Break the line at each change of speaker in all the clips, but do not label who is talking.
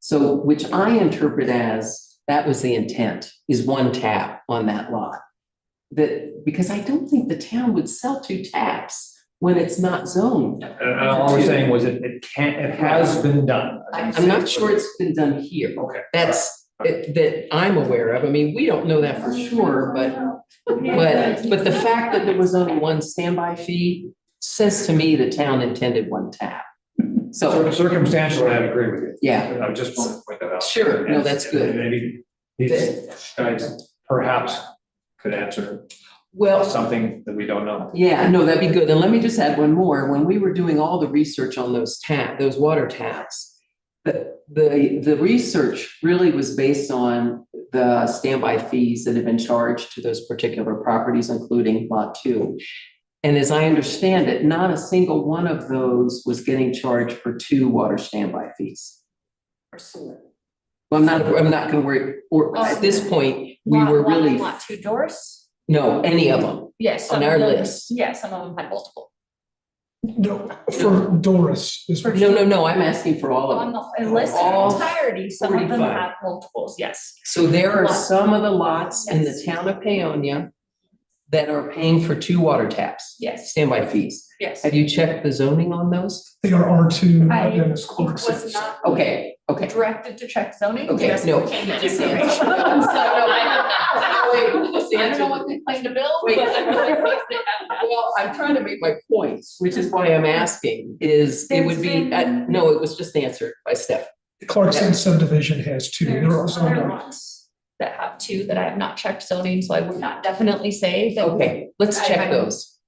So, which I interpret as, that was the intent, is one tap on that lot. That, because I don't think the town would sell two taps when it's not zoned.
And and all we're saying was it, it can, it has been done.
I, I'm not sure it's been done here.
Okay.
That's, that, that I'm aware of. I mean, we don't know that for sure, but But, but the fact that there was only one standby fee says to me the town intended one tap. So,
Cir- Circumstantially, I agree with you.
yeah,
I just wanted to point that out.
Sure, no, that's good.
And Maybe these guys perhaps could answer
well,
something that we don't know.
yeah, no, that'd be good. And let me just add one more. When we were doing all the research on those tap, those water taps, the, the, the research really was based on the standby fees that had been charged to those particular properties, including lot two. And as I understand it, not a single one of those was getting charged for two water standby fees. Well, I'm not, I'm not gonna worry, or at this point, we were really,
Oh. Lot two doors?
no, any of them.
Yes.
On
some of
our
them-
list.
Yeah, some of them had multiple.
No, for Doris is what
No, no, no, I'm asking for all of
On
them.
the in list
All
in entirety, some of them
45.
have multiples, yes.
So there are some of the lots in the town of Paonia that are paying for two water taps.
Yes.
Standby fees.
Yes.
Have you checked the zoning on those?
they are R two,
I
then it's Clark's.
Was not
Okay, okay.
directed to check zoning.
Okay,
yes,
no.
we can get
Yes.
information. So, no, I don't know. I don't know what they claim to bill, but I feel like once they have that-
Well, I'm trying to make my points, which is why I'm asking, is it would be,
There's
uh,
been-
no, it was just answered by Steph.
Clarkson subdivision has two, there are
There's
some.
other ones that have two that I have not checked zoning, so I would not definitely say that.
Okay, let's check those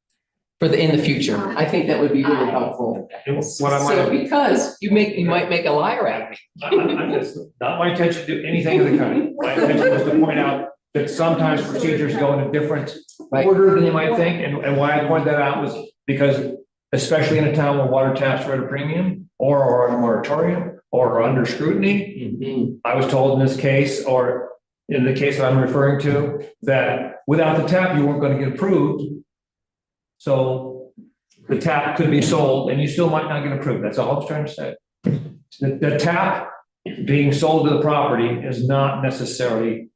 for the, in the future. I think that would be really helpful.
And What I
So
might,
because you make, you might make a liar out of me.
I, I, am just, not my intention to do anything of the kind. My intention was to point out that sometimes procedures go in a different
Right.
order than you might think, and, and why I pointed that out was because especially in a town where water taps are at a premium, or, or on a moratorium, or are under scrutiny,
Mm-hmm.
I was told in this case, or in the case that I'm referring to, that without the tap, you weren't gonna get approved. So the tap could be sold and you still might not get approved. That's all I was trying to say. The, the tap being sold to the property is not necessarily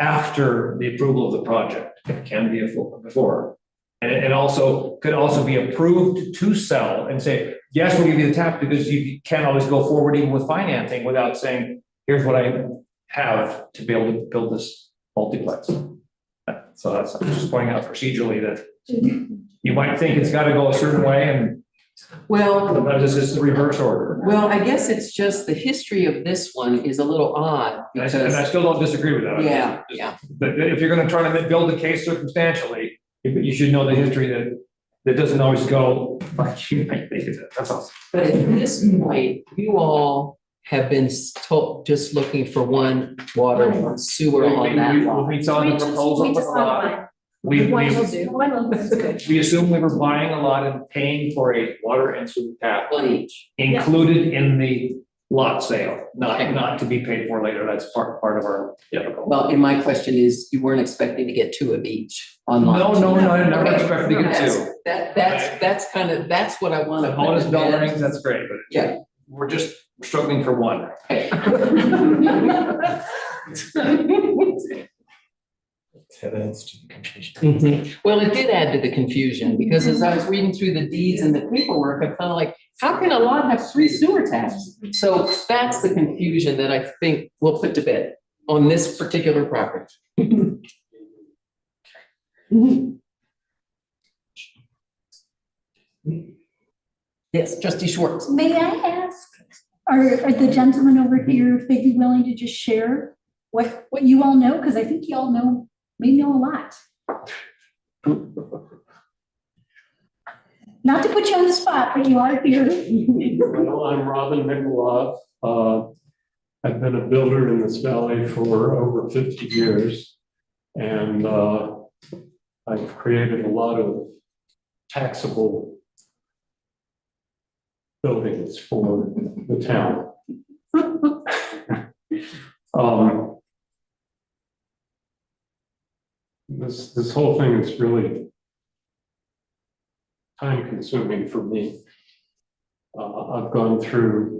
after the approval of the project. It can be befo- before. And, and also, could also be approved to sell and say, yes, we'll give you the tap because you can't always go forward even with financing without saying, here's what I have to be able to build this multiplex. So that's, I'm just pointing out procedurally that you might think it's gotta go a certain way and
Well,
sometimes it's just the reverse order.
Well, I guess it's just the history of this one is a little odd
And I- and I
because,
still don't disagree with that.
yeah, yeah.
But if you're gonna try to build the case circumstantially, you you should know the history that, that doesn't always go like you might think it, that's all.
But at this point, you all have been s- told, just looking for one water and sewer on that lot.
We saw the proposal with a lot. We,
One will
we,
do. One will do.
we assumed we were buying a lot and paying for a water and sewer tap.
One each.
Yeah.
included in the lot sale,
Okay.
not, not to be paid for later. That's part, part of our typical.
Well, and my question is, you weren't expecting to get two of each on
No,
lot two.
no, no, I never
Okay.
expected to get
That's-
two.
That, that's, that's kind of, that's what I want
The
to.
bonus bell rings, that's great, but.
Yeah.
We're just struggling for one.
Mhm. Well, it did add to the confusion because as I was reading through the deeds and the paperwork, I'm kind of like, how can a lot have three sewer taps? So that's the confusion that I think we'll put to bed on this particular property. Yes, trustee Schwartz.
May I ask, are, are the gentlemen over here, if they'd be willing to just share what, what you all know? Because I think you all know, may know a lot. Not to put you on the spot, but you are here.
Well, I'm Robin Mikulov. Uh, I've been a builder in this valley for over fifty years. And uh, I've created a lot of taxable buildings for the town. Um, This, this whole thing is really time consuming for me. Uh, I've gone through